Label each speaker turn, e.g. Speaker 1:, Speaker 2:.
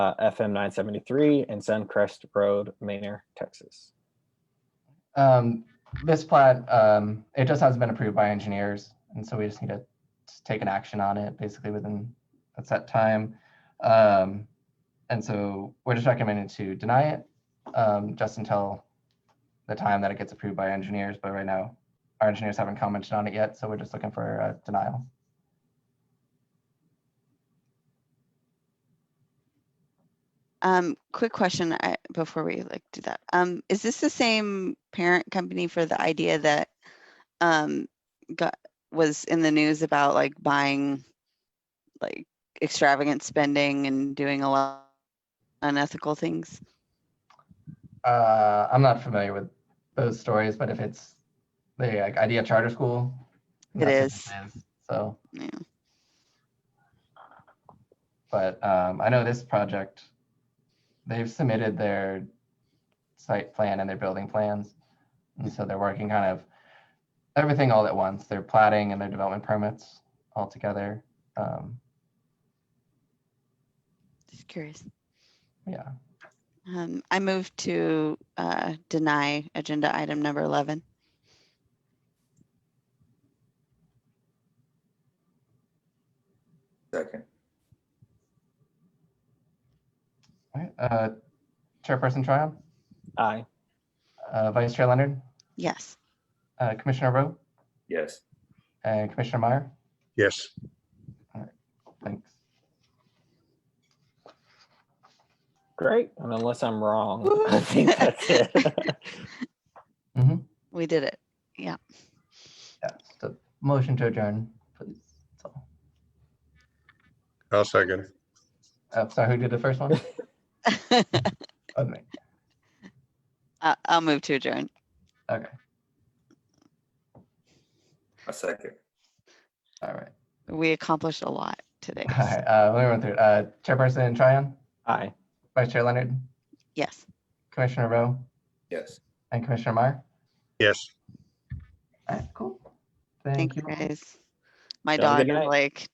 Speaker 1: uh, FM 973 and Suncrest Road, Manor, Texas.
Speaker 2: Um, this plat, um, it just hasn't been approved by engineers, and so we just need to s- take an action on it basically within a set time. Um, and so we're just recommended to deny it, um, just until the time that it gets approved by engineers, but right now, our engineers haven't commented on it yet, so we're just looking for a denial.
Speaker 3: Um, quick question, I, before we like do that, um, is this the same parent company for the idea that, um, got, was in the news about like buying, like extravagant spending and doing a lot unethical things?
Speaker 2: Uh, I'm not familiar with those stories, but if it's the like, idea charter school.
Speaker 3: It
Speaker 2: that's what it is, So.
Speaker 3: Yeah.
Speaker 2: But um, I know this project, they've submitted their site plan and their building plans. And so they're working kind of everything all at once. They're plating and their development permits all together. Um,
Speaker 3: Just curious.
Speaker 2: yeah.
Speaker 3: Um, I move to, uh, deny agenda item number eleven.
Speaker 4: Second.
Speaker 2: All right. Uh, Chairperson Tryon,
Speaker 1: Aye.
Speaker 2: uh, Vice Chair Leonard,
Speaker 3: Yes.
Speaker 2: uh, Commissioner Rowe,
Speaker 4: Yes.
Speaker 2: and Commissioner Meyer.
Speaker 5: Yes,
Speaker 2: Thanks.
Speaker 1: Great. And unless I'm wrong,
Speaker 3: Woo.
Speaker 1: I think that's it.
Speaker 3: We did it.
Speaker 2: Yeah, so motion to adjourn, please. That's all.
Speaker 5: I'll second.
Speaker 2: Oh, sorry, who did the first one? Oh, me.
Speaker 3: I, I'll move to adjourn.
Speaker 2: Okay,
Speaker 4: A second.
Speaker 2: all right.
Speaker 3: We accomplished a lot today.
Speaker 2: All right, uh, let me run through. it. Uh, Chairperson Tryon,
Speaker 1: Aye.
Speaker 2: Vice Chair Leonard,
Speaker 3: Yes.
Speaker 2: Commissioner Rowe,
Speaker 4: Yes.
Speaker 2: and Commissioner Meyer.
Speaker 5: Yes.
Speaker 2: All right, cool.
Speaker 3: Thank you
Speaker 2: all.
Speaker 3: guys. My
Speaker 1: Have a
Speaker 3: dog
Speaker 1: good
Speaker 3: is
Speaker 1: night.
Speaker 3: like